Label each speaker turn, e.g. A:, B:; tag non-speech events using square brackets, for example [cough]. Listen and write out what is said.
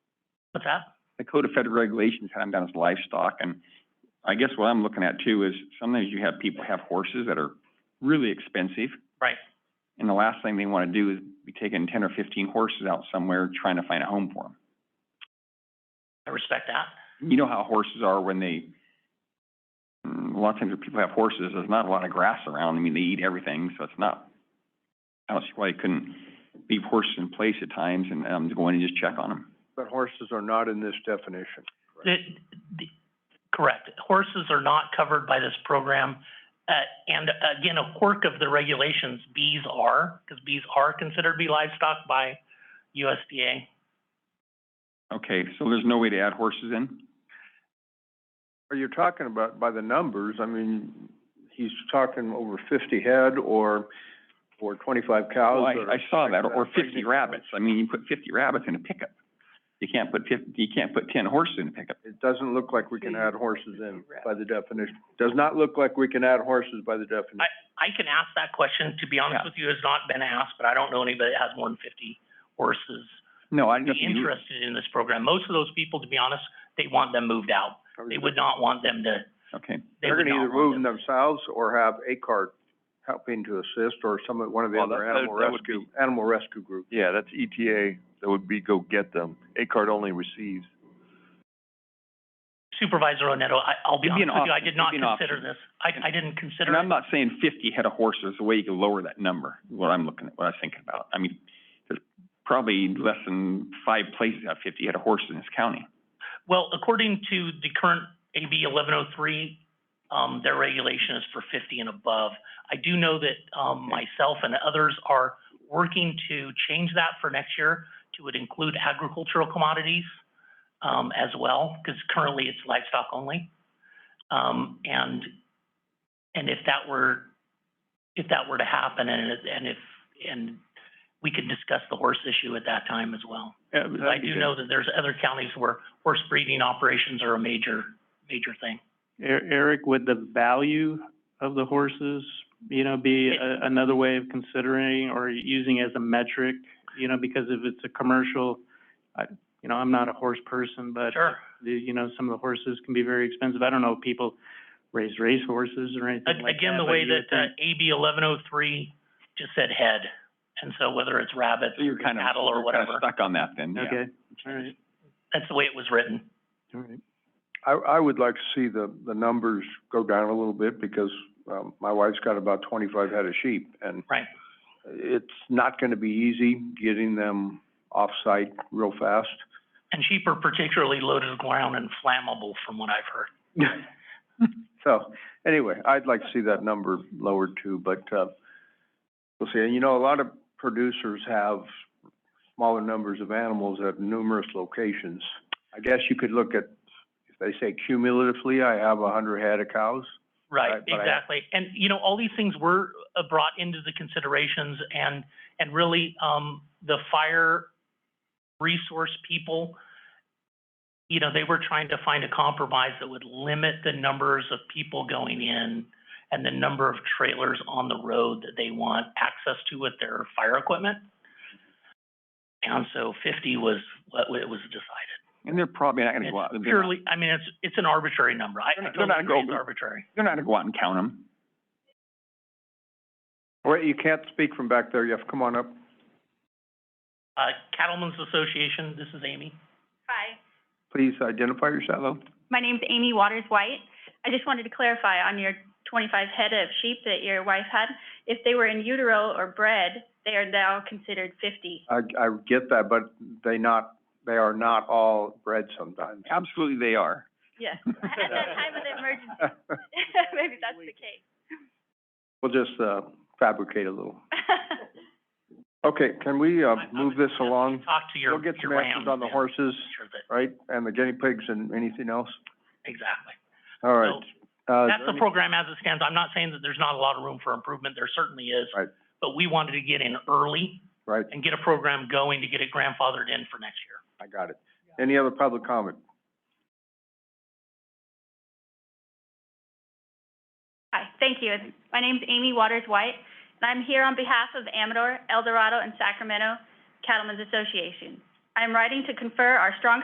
A: What's that?
B: the Code of Federal Regulations had them down as livestock, and I guess what I'm looking at too is sometimes you have people have horses that are really expensive.
A: Right.
B: And the last thing they want to do is be taking ten or fifteen horses out somewhere trying to find a home for
A: I respect that.
B: them. You know how horses are when they, mm, a lot of times when people have horses, there's not a lot of grass around. I mean, they eat everything, so it's not, I don't see why you couldn't leave horses in place at times and, um, go in and just check on them.
C: But horses are not in this definition.
A: The, the, correct. Horses are not covered by this program. Uh, and again, a quirk of the regulations, bees are, because bees are considered to be livestock by USDA.
B: Okay, so there's no way to add horses in?
C: Are you talking about by the numbers? I mean, he's talking over fifty head or, or twenty-five cows
B: Well, I,
C: or-
B: I saw that, or
C: Pregnant
B: fifty rabbits, I mean, you put fifty rabbits in a pickup. You can't put fif- you can't put ten horses in a pickup.
C: It doesn't look like we can add horses in by the definition. Does not look like we can add horses by the definition.
A: I can ask that question. To be honest
B: Yeah.
A: with you, it's not been asked, but I don't know anybody that has more than fifty horses
B: No, I
A: be
B: just,
A: interested in this program. Most of those people, to be honest, they want them moved out. They would not want them to,
B: okay,
A: they
C: They're
A: would
C: gonna
A: not
C: either
A: want
C: move them
A: them.
C: themselves or have a cart helping to assist or some, of- one of the
D: Well,
C: other
D: that- that-
C: animal
D: that would
C: rescue, animal rescue groups.
D: Yeah, that's ETA, that would be go get them. A card only receives.
A: Supervisor Oneto, I, I'll be
B: It'd be
A: honest
B: an
A: with you, I
B: option.
A: did
B: It'd
A: not
B: be an
A: consider
B: option.
A: this. I, I didn't consider
B: and I'm
A: it.
B: not saying fifty head of horses, the way you can lower that number, is what I'm looking at, what I was thinking about. I mean, there's probably less than five places that have fifty head of horses in this county.
A: Well, according to the current AB eleven oh three, um, their regulation is for fifty and above. I do know that, um,
B: Okay.
A: myself and others are working to change that for next year to would include agricultural commodities, um, as well, because currently it's livestock only. Um, and, and if that were, if that were to happen and, it- and if, and we could discuss the horse issue at that time as well.
B: Yeah,
A: Because I do know that there's other counties where horse breeding operations are a major, major thing.
E: E- Eric, would the value of the horses, you know, be a- another way of considering or using as a metric? You know, because if it's a commercial, I, you know, I'm not a horse person, but
A: Sure.
E: the, you know, some of the horses can be very expensive. I don't know if people raise race horses or anything
A: A-
E: like that.
A: Again, the
E: but
A: way
E: you would
A: that, uh,
E: think-
A: AB eleven oh three just said head. And so whether it's rabbits
B: So you're
A: or
B: kind of,
A: cattle or
B: you're kind of
A: whatever,
B: stuck on that then, yeah.
E: Okay, all right,
A: that's the way it was written.
E: all right.
C: I, I would like to see the, the numbers go down a little bit because, um, my wife's got about twenty-five head of sheep and
A: Right.
C: it's not gonna be easy getting them off-site real fast.
A: And sheep are particularly loaded with ground and flammable from what I've heard.
C: So, anyway, I'd like to see that number lowered too, but, uh, we'll see. And you know, a lot of producers have smaller numbers of animals at numerous locations. I guess you could look at, if they say cumulatively, I have a hundred head of cows.
A: Right,
C: Right, but I-
A: exactly. And, you know, all these things were uh, brought into the considerations and, and really, um, the fire resource people, you know, they were trying to find a compromise that would limit the numbers of people going in and the number of trailers on the road that they want access to with their fire equipment. And so fifty was what it was decided.
B: And they're probably not gonna
A: It's
B: go out, they're not,
A: Purely, I mean, it's, it's an arbitrary number. I,
B: They're
A: I
B: not- they're
A: totally
B: not
A: agree it's
B: going-
A: arbitrary.
B: they're not gonna go out and count them.
C: Wait, you can't speak from back there. You have to come on up.
A: Uh, Cattlemen's Association, this is Amy.
F: Hi,
C: Please identify yourself.
F: my name's Amy Waters White. I just wanted to clarify on your 25 head of sheep that your wife had, if they were in utero or bred, they are now considered 50.
C: I, I get that, but they not, they are not all bred sometimes.
B: Absolutely they are.
F: Yes, [laughs] at that time of the emergency,
C: [laughs]
F: maybe that's the case. [laughs]
C: We'll just, uh, fabricate a little. Okay, can we, uh,
A: I- I
C: move
A: would
C: this
A: suggest you
C: along?
A: Talk to your,
C: We'll
A: your
C: get some
A: rams.
C: answers on the
A: and
C: horses,
A: make sure that-
C: right? And the guinea pigs and anything else?
A: Exactly.
C: All
A: So
C: right. Uh, is
A: that's
C: there
A: the
C: any-
A: program as it stands. I'm not saying that there's not a lot of room for improvement. There certainly is.
C: Right.
A: But we wanted to get in early
C: Right,
A: and get a program going to get it grandfathered in for next year.
C: I got it. Any other public comment?
F: Hi, thank you. My name's Amy Waters White, and I'm here on behalf of Amador, El Dorado, and Sacramento Cattlemen's Association. I'm writing to confer our strong